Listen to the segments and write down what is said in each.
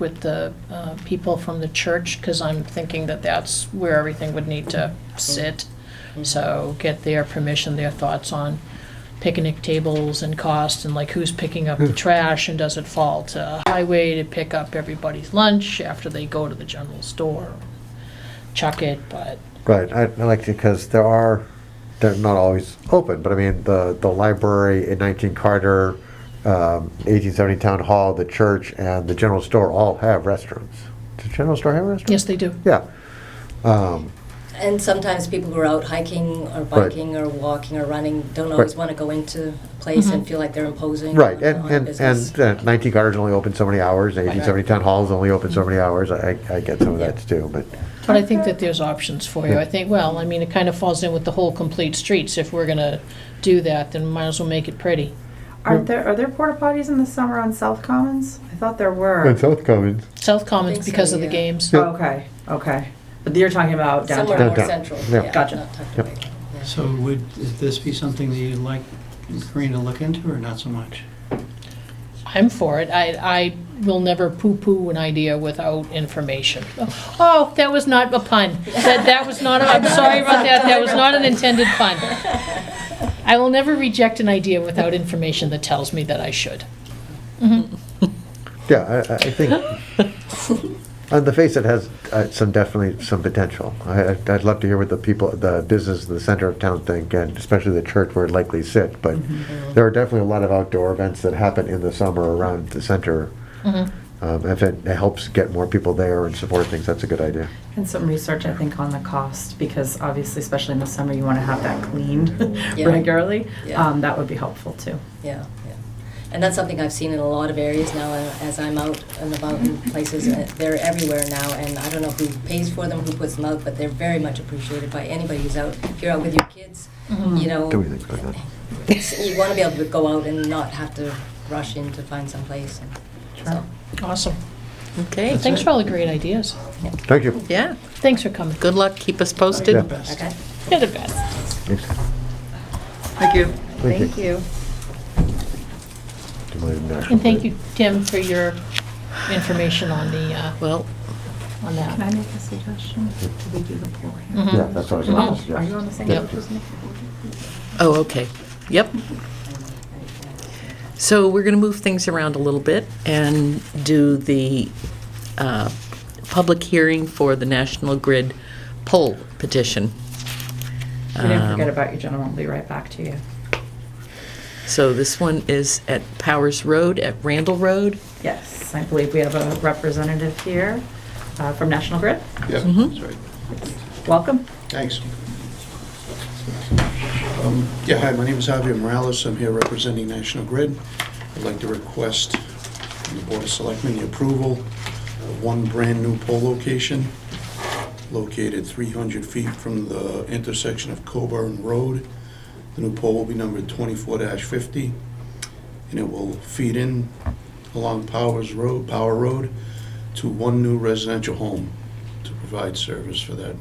with the uh, people from the church, because I'm thinking that that's where everything would need to sit. Mm-hmm. So get their permission, their thoughts on picnic tables and cost, and like who's picking up the trash, and does it fall to highway to pick up everybody's lunch after they go to the general store? Chuck it, but, Right, I, I like it because there are, they're not always open, but I mean, the, the library in 19 Carter, um, 1870 Town Hall, the church, and the general store all have restaurants. Does the general store have restaurants? yes, they do. Yeah. Um, And sometimes people who are out hiking or Right. biking or walking or running don't always Right. want to go into a place Mm-hmm. and feel like they're imposing Right, on, and, on and, business. and uh, 19 Carter's only open so many hours, and 1870 Town Hall's only open so many hours, I, I get some of Yeah. that too, but, But I think that there's options for you. I think, well, I mean, it kind of falls in with the whole complete streets. If we're gonna do that, then might as well make it pretty. Are there are there porta potties in the summer on South Commons? I thought there were. and South Commons. South I Commons think so, because of the yeah. games. Oh, okay, okay. But you're talking about Somewhere downtown. more Downtown. central. Yeah. Yeah, Gotcha. Not tucked Yep. away. Yeah. So would this be something that you'd like Corinne to look into, or not so much? I'm for it. I, I will never poo-poo an idea without information. Oh, that was not a pun. That, that was not, a- I'm sorry about that. That was not an intended pun. I will never reject an idea without information that tells me that I should. Yeah, I- I, I think, on the face, it has uh, some, definitely some potential. I, I'd- I'd love to hear what the people, the business in the center of town think, and especially the church where it likely sit, but Mm-hmm. there are definitely a lot of outdoor events that happen in the summer around the center. Mm-hmm. Um, If it helps get more people there and support things, that's a good idea. And some research, I think, on the cost because obviously, especially in the summer, you want to have that cleaned Yeah. regularly. Yeah. Um, that would be helpful too. Yeah, yeah. And that's something I've seen in a lot of areas now uh, as I'm out and about in Mm-hmm. places. uh, They're everywhere now, and I don't know who pays for them, who puts them out, but they're very much appreciated by anybody who's out. If you're out with your kids, Mm-hmm. you know, Do we think about that? you want to be able to go out and not have to rush in to find some place. and Sure. So, Awesome. Okay, Thanks for all the great ideas. Thank you. yeah, Thanks for coming. good luck, keep us Yeah. posted. Best. Okay? You're the best. Thanks. Thank you. Thank you. you. And thank you, Tim, for your information on the, uh, Well, on Can that. I make a suggestion? Do we do the pool here? Mm. Mhm. Yeah, that's what I was gonna Mm-hmm. Mm-hmm. Are you on the suggest. same Yep. page as me? oh, okay, yep. So we're going to move things around a little bit and do the uh, public hearing for the National Grid poll petition. We didn't Um, forget about you, gentlemen. We'll be right back to you. So this one is at Powers Road, at Randall Road. Yes, I believe we have a representative here uh, from National Grid. Yeah, Mhm. that's right. Welcome. Thanks. Um, Yeah, hi, my name is Javier Morales. I'm here representing National Grid. I'd like to request from the Board of Selectmen the approval of one brand-new pole location located 300 feet from the intersection of Coburn Road. The new pole will be numbered 24-50, and it will feed in along Powers Road, Power Road, to one new residential home to provide service for that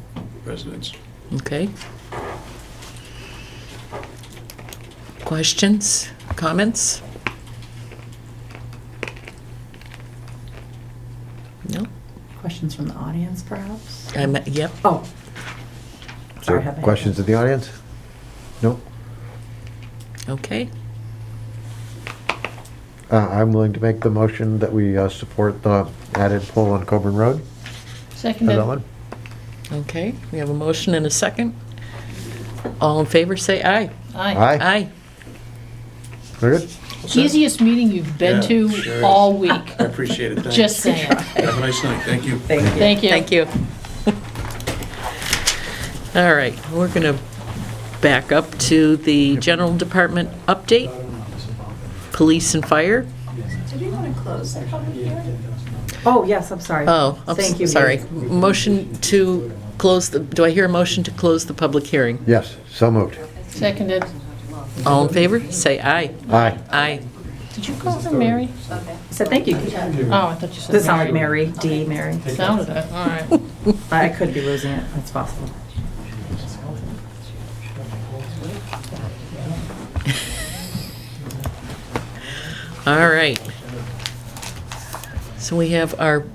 residence. Okay. Questions, comments? No? Questions from the audience, perhaps? I'm, yep, Oh, Is there Sorry, have I- Questions in the audience? No? okay. Uh, I'm willing to make the motion that we uh, support the added pole on Coburn Road. Is that Seconded. one? Okay, we have a motion and a second. All in favor, say aye. Aye. Aye. We're good? Easiest meeting you've been Yeah, to sure is. all week. I appreciate it, thanks. Just saying. Have a nice night, thank you. thank you. Thank you. Thank you. All right, we're going to back up to the general department update, police and fire. Oh, yes, I'm sorry. Oh, I'm Thank you, s- sorry. Gabe. Motion to close the, do I hear a motion to close the public hearing? Yes, so moved. Seconded. All in favor? Say aye. Aye. Aye. Did you call her Mary? I said thank you. Gabe. Oh, I thought you said. This sounded Mary, D. Mary. Sounded it, all right. I could be losing it. That's possible. All right. So we have our